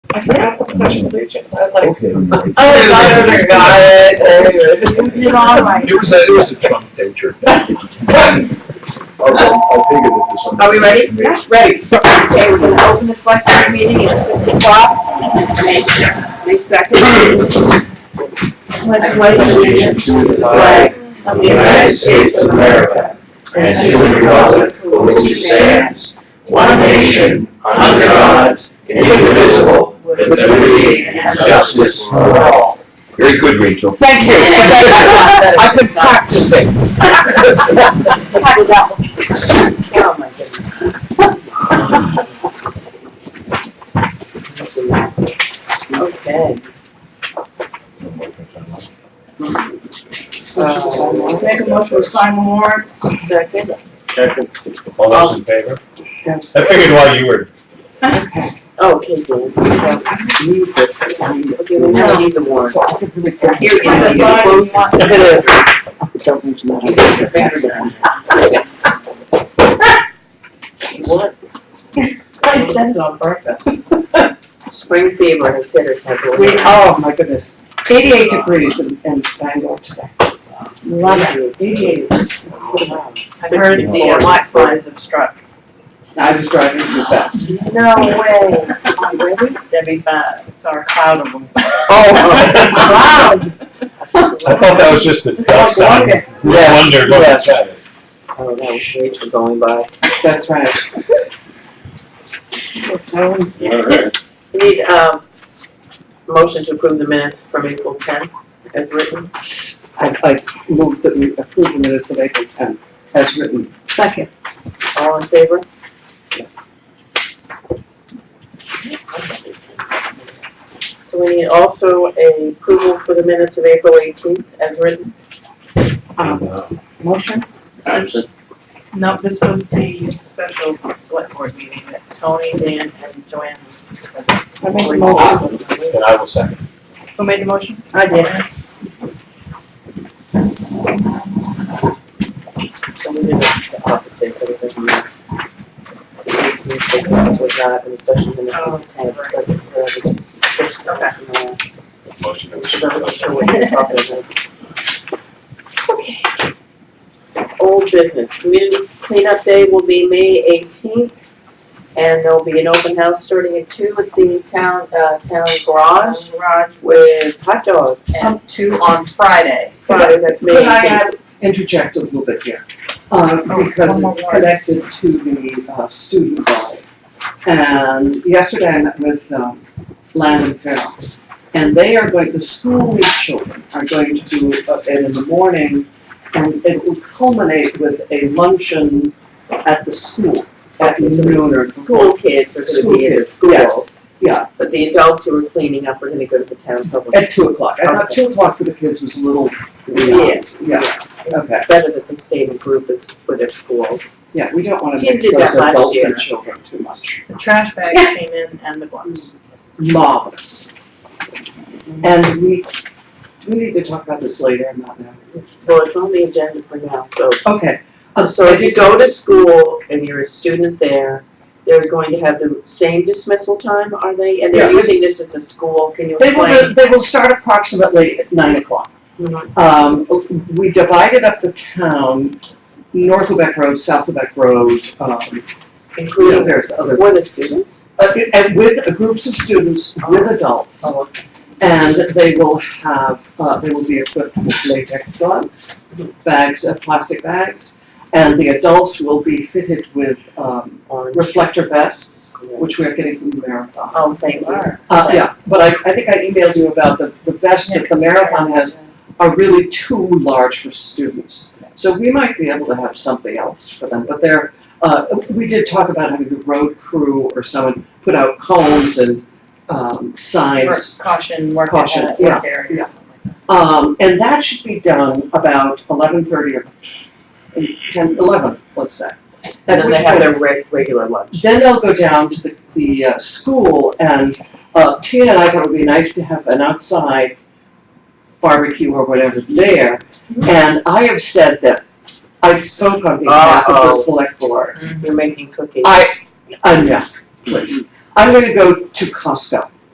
I forgot the pledge of allegiance. I was like, Okay. oh, got it, got oh, it. You know, I'm like, It was a, it was a Trump venture. I'll, I'll figure that there's something. Are we ready? Yeah. Ready. Okay, we're gonna open the select board meeting at six o'clock. May May second. Pledge allegiance to the flag of the United States of America and to the republic for which it stands, one nation, under God, indivisible, with liberty and justice for all. Very good, Rachel. Thank you. I could practice it. Oh, my goodness. Okay. Uh, Make a motion to sign warrants, second. All those in favor? Yes. I figured while you were, Oh, Okay, Dan. Need this. Okay, we now need the warrants. Here's my- Don't mention that. What? I said it on purpose. Spring fever has hit us heavily. We, oh my goodness, eighty-eight degrees in, in Bangor today. Love it, eighty-eight. Wow. I heard Oh, the uh, white flies have struck. I was driving too fast. No way. Debbie, uh, Fa- it's our cloud of them. Oh, Wow. I thought that was just the It's dust like on, rocket. no Yes, wonder, look yes. at it. Oh, that was Rachel going by. That's right. We need, um, motion to approve the minutes from April tenth as written. I'd like to move that we approve the minutes of April ten as written. Second. All in favor? So we need also a approval for the minutes of April eighteenth as written. Um, motion? No, this was the special select board meeting that Tony, Dan, and Joanne. was- I make a motion. And I will second. Who made the motion? I did. So we did this opposite, but it doesn't matter. The 18th was not- was not, and especially in the Oh, summertime, but uh, it was a suspicious motion there. Motion to So I wasn't sure what you were talking about. Old business, community cleanup day will be May eighteenth, and there'll be an open house starting at two at the town, uh, town garage Garage with hot dogs. and two on Friday. Friday, that's May Could I eighteenth. add- interject a little bit here? Um, Oh, because one it's more. connected to the uh, student body. And yesterday I met with um, Landon Farrell. And they are going, the school week children are going to do it in the morning. And it will culminate with a luncheon at the school, at noon or School kids are gonna be in the School kids, school, yeah, but the adults who are cleaning up are gonna go to the town public. at two o'clock. I thought two o'clock for the kids was a little, Yeah. yeah, okay. It's better that they stay in a group with- for their schools. Yeah, we don't wanna Tim mix did those that last adults year. and children too much. The trash bag came in and the gloves. Marvelous. And we, do we need to talk about this later or not now? Well, it's on the agenda for now, so Okay, um, So if you go to school and you're a student there, they're going to have the same dismissal time, are they? And they're Yeah. using this as a school, can you They will, explain? do- they will start approximately at nine o'clock. Mhm. Um, we divided up the town, North Quebec Road, South Quebec Road, um, you know, Including there's other. for the students? uh, And with groups of students, with adults. Oh, And they will have, uh, they will be equipped with latex gloves, bags, uh, plastic bags. And the adults will be fitted with, um, Orange. reflector vests, which we are getting from the marathon. Oh, thank you. Uh, yeah, but I, I think I emailed you about the, the vests that the marathon has are really too large for students. So we might be able to have something else for them, but they're, uh, we did talk about having the road crew or someone put out cones and, um, signs Work Caution, work Caution, at, work area yeah. or something like that. Um, and that should be done about eleven thirty or ten, eleven, let's say. And then which they point- have their reg- regular lunch. Then they'll go down to the, the, uh, school and, uh, Tina and I thought it would be nice to have an outside barbecue or whatever there. And I have said that I spoke on behalf of the Uh-oh. select board. Mm-hmm. You're making cookies. I, uh, no, please. I'm gonna go to Costco